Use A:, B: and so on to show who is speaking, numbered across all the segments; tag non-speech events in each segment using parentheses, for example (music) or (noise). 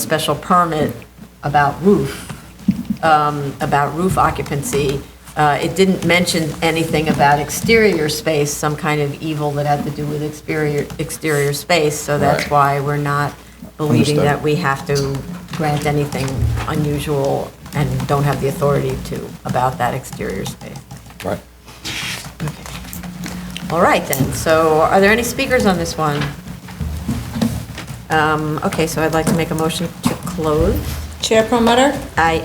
A: special permit about roof, um, about roof occupancy. Uh, It didn't mention anything about exterior space, some kind of evil that had to do with exterior, exterior space, so that's
B: Right.
A: why we're not believing
B: Understood.
A: that we have to grant anything unusual and don't have the authority to about that exterior space.
B: Right.
A: All right, then. So are there any speakers on this one? Um, Okay, so I'd like to make a motion to close.
C: Chair Promoter,
A: Aye.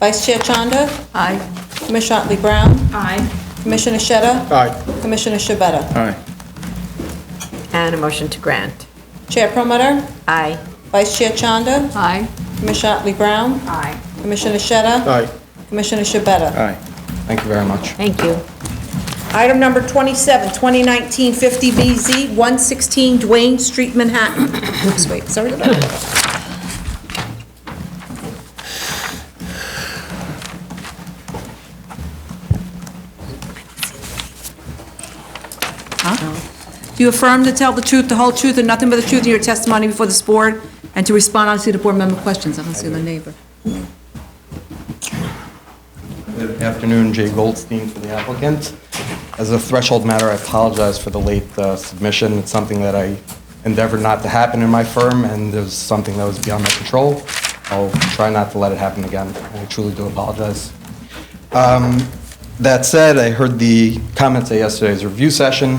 C: Vice Chair Chanda,
A: Aye.
C: Commissioner Otley Brown,
A: Aye.
C: Commissioner Shetta,
B: Aye.
C: Commissioner Shabeta.
B: Aye.
A: And a motion to grant.
C: Chair Promoter,
A: Aye.
C: Vice Chair Chanda,
A: Aye.
C: Commissioner Otley Brown,
A: Aye.
C: Commissioner Shetta,
B: Aye.
C: Commissioner Shabeta.
B: Aye. Thank you very much.
A: Thank you.
C: Item number 27, 2019-50BZ, 116 Duane Street, Manhattan. Oops, wait, sorry. Do you affirm to tell the truth, the whole truth, and nothing but the truth in your testimony before this board, and to respond honestly to board member questions? I don't see the neighbor.
B: Good afternoon, Jay Goldstein for the applicant. As a threshold matter, I apologize for the late uh, submission. It's something that I endeavored not to happen in my firm, and it was something that was beyond my control. I'll try not to let it happen again. I truly do apologize. Um, That said, I heard the comments at yesterday's review session.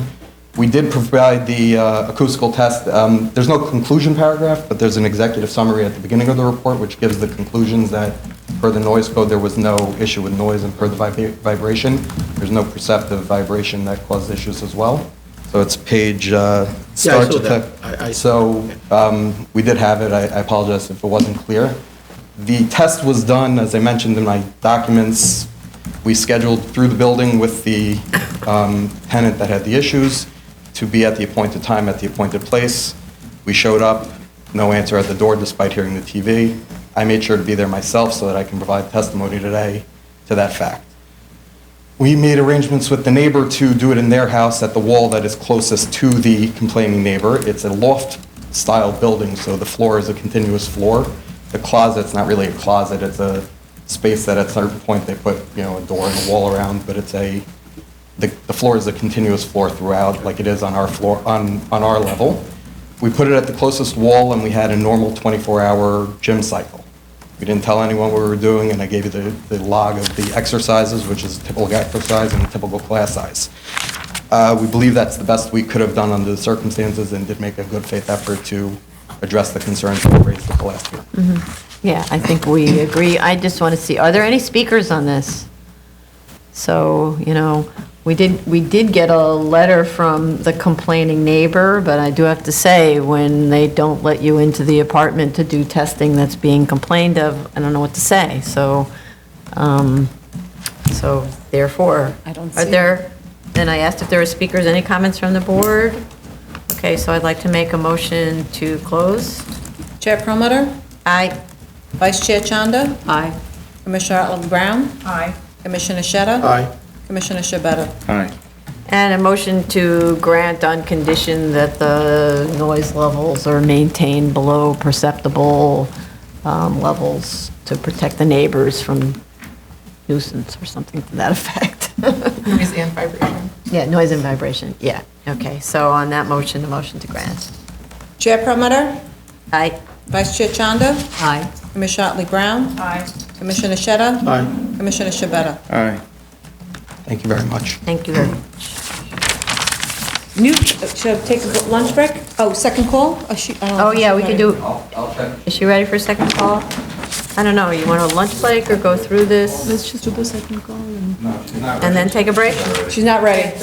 B: We did provide the uh, acoustical test. Um, There's no conclusion paragraph, but there's an executive summary at the beginning of the report, which gives the conclusions that per the noise code, there was no issue with noise, and per the vibra- vibration, there's no perceptive vibration that caused issues as well. So it's page, uh,
D: Yeah, I
B: start
D: saw
B: to...
D: that.
B: te-
D: I- I-
B: So um, we did have it. I I apologize if it wasn't clear. The test was done, as I mentioned in my documents, we scheduled through the building with the um, tenant that had the issues to be at the appointed time at the appointed place. We showed up, no answer at the door despite hearing the TV. I made sure to be there myself so that I can provide testimony today to that fact. We made arrangements with the neighbor to do it in their house at the wall that is closest to the complaining neighbor. It's a loft-style building, so the floor is a continuous floor. The closet's not really a closet, it's a space that at a certain point they put, you know, a door and a wall around, but it's a, the the floor is a continuous floor throughout, like it is on our floor, on, on our level. We put it at the closest wall, and we had a normal 24-hour gym cycle. We didn't tell anyone what we were doing, and I gave you the, the log of the exercises, which is typical exercise and typical class size. Uh, We believe that's the best we could have done under the circumstances and did make a good faith effort to address the concerns that were raised at the last year.
A: Yeah, I think we agree. I just want to see, are there any speakers on this? So, you know, we did, we did get a letter from the complaining neighbor, but I do have to say, when they don't let you into the apartment to do testing that's being complained of, I don't know what to say. So, um, so therefore,
C: I don't
A: are
C: see-
A: there, and I asked if there were speakers, any comments from the board? Okay, so I'd like to make a motion to close.
C: Chair Promoter,
A: Aye.
C: Vice Chair Chanda,
A: Aye.
C: Commissioner Otley Brown,
A: Aye.
C: Commissioner Shetta.
D: Aye.
C: Commissioner Shabeta.
B: Aye.
A: And a motion to grant on condition that the noise levels are maintained below perceptible um, levels to protect the neighbors from nuisance or something to that (laughs) effect.
E: Noise and vibration.
A: Yeah, noise and vibration, yeah. Okay, so on that motion, the motion to grant.
C: Chair Promoter,
A: Aye.
C: Vice Chair Chanda,
A: Aye.
C: Commissioner Otley Brown,
E: Aye.
C: Commissioner Shetta.
D: Aye.
C: Commissioner Shabeta.
B: Aye. Thank you very much.
A: Thank you very much.
C: New, uh, should I take a lunch break? Oh, second call? Oh, she- I don't know
A: Oh,
C: if she's
A: yeah, we can
C: ready.
A: do,
B: I'll, I'll check.
A: is she ready for a second call? I don't know, you want a lunch break or go through this
E: Let's just do the second call and.
A: and then take a break?
C: She's not ready.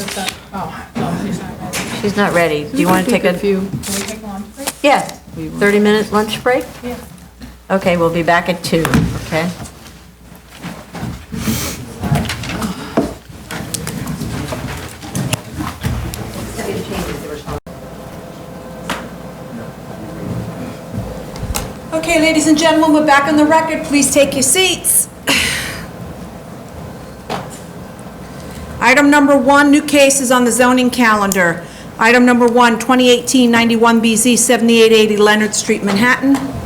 E: Oh, no, she's not ready.
A: She's not ready. Do you want to take a?
E: few? Can we take a lunch break?
A: Yeah, 30-minute lunch break?
E: Yeah.
A: Okay, we'll be back at two. okay?
C: Okay, ladies and gentlemen, we're back on the record. Please take your seats. Item number one, new cases on the zoning calendar. Item number one, 2018-91BZ, 7880 Leonard Street, Manhattan.